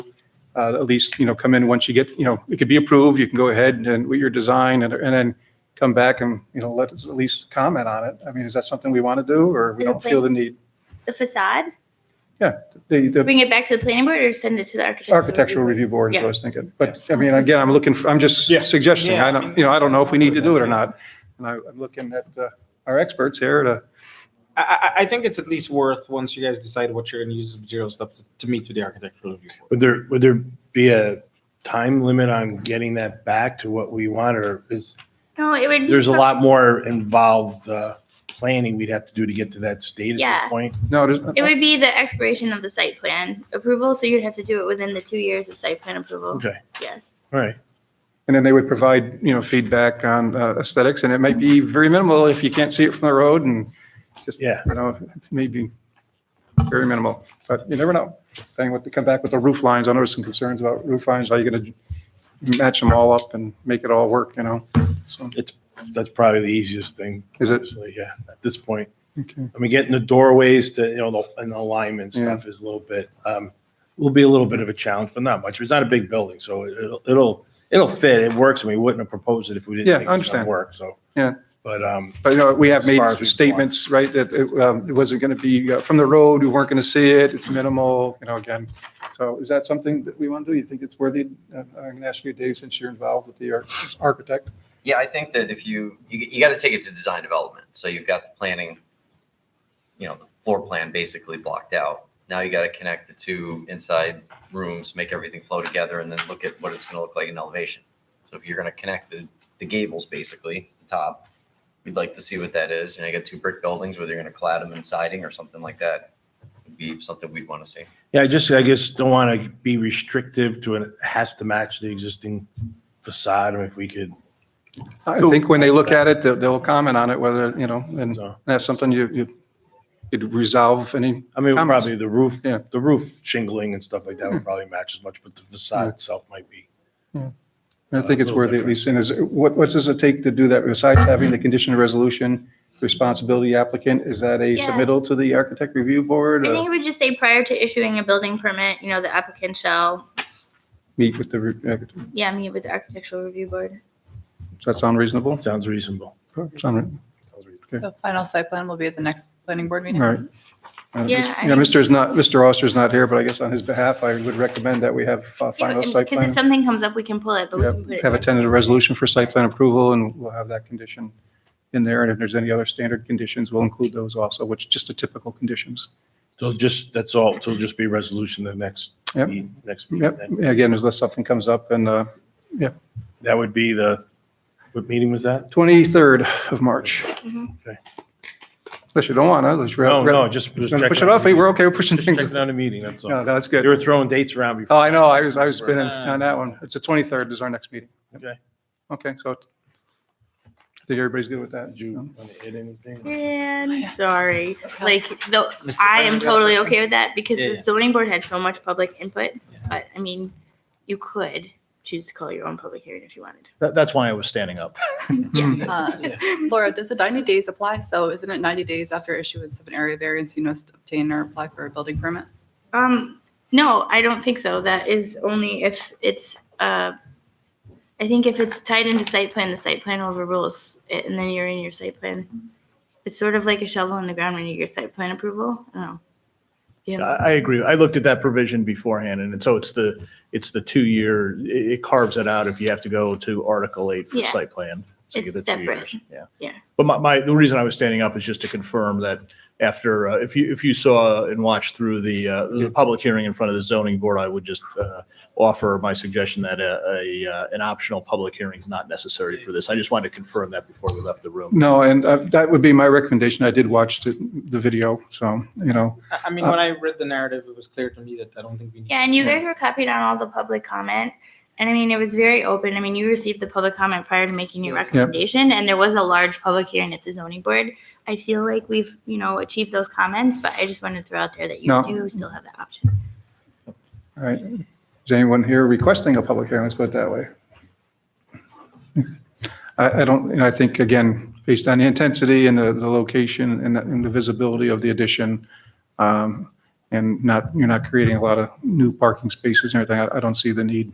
uh, at least, you know, come in once you get, you know, it could be approved, you can go ahead and- and with your design and, and then come back and, you know, let us at least comment on it. I mean, is that something we want to do or we don't feel the need? The facade? The, the Bring it back to the planning board or send it to the architectural? architectural review board is what I Yeah. was thinking. But I mean, again, I'm looking, for- I'm just Yeah. suggesting, I Yeah. don't, you know, I don't know if we need to do it or not. And I, I'm looking at uh, our experts here to, I, I, I think it's at least worth, once you guys decide what you're gonna use as material stuff, to- to meet with the architectural review board. Would there, would there be a time limit on getting that back to what we want, or is, No, it would. be there's a some- lot more involved, uh, planning we'd have to do to get to that state at Yeah. this point? no, there's, It would be the expiration of the site plan approval, so you'd have to do it within the two years of site plan approval. Okay, Yes. all right. And then they would provide, you know, feedback on uh, aesthetics, and it might be very minimal if you can't see it from the road, and just, you Yeah. know, maybe very minimal, but you never know. Then what, they come back with the roof lines, I know there's some concerns about roof lines, how you are going to match them all up and make it all work, you know? So, That's probably the easiest thing. Is it? honestly, Yeah, at this point. okay. I mean, getting the doorways to, you know, the- and the alignment Yeah. stuff is a little bit, um, will be a little bit of a challenge, but not much. It's not a big building, so it'll, it'll, it'll fit. It works. and we wouldn't have proposed it if we didn't. Yeah, think it I was understand. gonna Work, so. Yeah. But, um, But, you know, we have As made far as we- statements, right, that it um, it wasn't going to be uh, from the road, we weren't going to see it, it's minimal, you know, again. So is that something that we want to do? You think it's worthy? Uh, I'm going to ask you, Dave, since you're involved with the ar- architect. Yeah, I think that if you, you, you got to take it to design development. So you've got the planning, you know, the floor plan basically blocked out. Now you got to connect the two inside rooms, make everything flow together, and then look at what it's going to look like in elevation. So if you're going to connect the, the gables, basically, the top, we'd like to see what that is. You know, you got two brick buildings, whether you're going to clad them in siding or something like that would be something we'd want to see. yeah, I just, I guess, don't want to be restrictive to it. It has to match the existing facade. I mean, if we could, I think when they look at it, they'll, they'll comment on it, whether, you know, and so. that's something you, you, you'd resolve any, I mean, Comments? probably the roof, Yeah. Mm-hmm. the roof shingling and stuff like that would probably match as much, but the facade itself might be. I think it's A little worthy at different. least, and is, what, what does it take to do that besides having the condition of resolution, responsibility applicant? Is that a Yeah. submittal to the architect review board? I uh, think it would just say prior to issuing a building permit, you know, the applicant shall, Meet with the, re- uh, yeah, meet with the architectural review board. does that sound reasonable? Sounds reasonable. Sound right? The final site plan will be at the next planning board All meeting. right. Uh, Yeah, Mr. I Yeah, mean- Mr. is not, Mr. Oster's not here, but I guess on his behalf, I would recommend that we have uh, final site Because if plan. something comes up, we can pull it, but we Yep, can put it. Have a in. tentative resolution for site plan approval, and we'll have that condition in there. And if there's any other standard conditions, we'll include those also, which just the typical conditions. So just, that's all. So it'll just be resolution the next, Yep. meet- next meeting. Yep, again, unless something comes up, and uh, That would be the, what meeting was that? 23rd of March. Mhm. Okay. Unless you don't want to, unless you're. No, Oh, no, just. just Gonna Push checking it on off, the hey, we're meeting. okay, we're pushing Just things. checking on a meeting, that's No, all. that's They good. were throwing dates around before. Oh, I know, I was, I was spinning on that one. It's the 23rd is our next meeting. Okay. Okay, so it's- I think everybody's good with that. Um, Did you want to hit anything? Oh, And sorry, like, the, Mr. I am President, totally okay with that because Yeah, the yeah. zoning board had so much public input, but I mean, you could choose to call your own public hearing if you wanted. That, that's why I was standing up. Mhm. Uh, Laura, does the 90 days apply? So isn't it 90 days after issuance of an area variance you must obtain or apply for a building permit? Um, no, I don't think so. That is only if it's, uh, I think if it's tied into site plan, the site plan overrules it and then you're in your site plan. It's sort of like a shovel in the ground when you get site plan approval. Oh. I, Yeah, I agree. I looked at that provision beforehand and it- so it's the, it's the two-year, it it carves it out if you have to go to Article 8 for Yeah. site plan. So you It's get the two separate. years. Yeah. Yeah. But my, my, the reason I was standing up is just to confirm that after, uh, if you, if you saw and watched through the, uh, the public hearing in front of the zoning board, I would just, uh, offer my suggestion that a, a, uh, an optional public hearing is not necessary for this. I just wanted to confirm that before we left the room. No, and uh, that would be my recommendation. I did watch the, the video, so, you know, I, I mean, when I read the narrative, it was clear to me that I don't think we need. Yeah, and you guys were copied on all the public comment. And I mean, it was very open. I mean, you received the public comment prior to making your Yeah. recommendation and there was a large public hearing at the zoning board. I feel like we've, you know, achieved those comments, but I just wanted to throw out there that you No. do still have that option. all right. Is anyone here requesting a public hearing? Let's put it that way. I, I don't, and I think, again, based on the intensity and the, the location and the- and the visibility of the addition, um, and not, you're not creating a lot of new parking spaces and everything. I I don't see the need